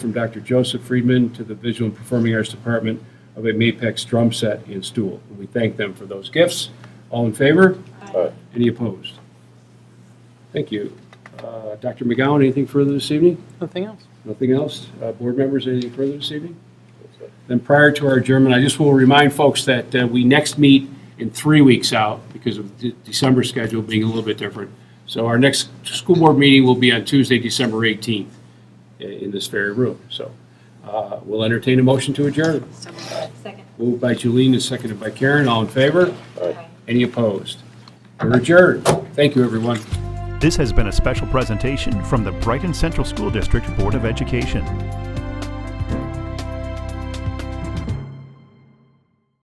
from Dr. Joseph Friedman to the Visual and Performing Arts Department of a Mapex drum set and stool. And We thank them for those gifts. All in favor? Aye. Any opposed? Thank you. Uh, Dr. McGowan, anything further this evening? Nothing else? Nothing else? Uh, Board members, anything further this evening? Then prior to our adjournment, I just will remind folks that uh, we next meet in three weeks out because of the December schedule being a little bit different. So our next school board meeting will be on Tuesday, December 18th i- in this very room. So uh, we'll entertain a motion to adjourn. So Second. Moved by Jolene and seconded by Karen. All in favor? Aye. Any opposed? We're adjourned. Thank you, everyone. This has been a special presentation from the Brighton Central School District Board of Education.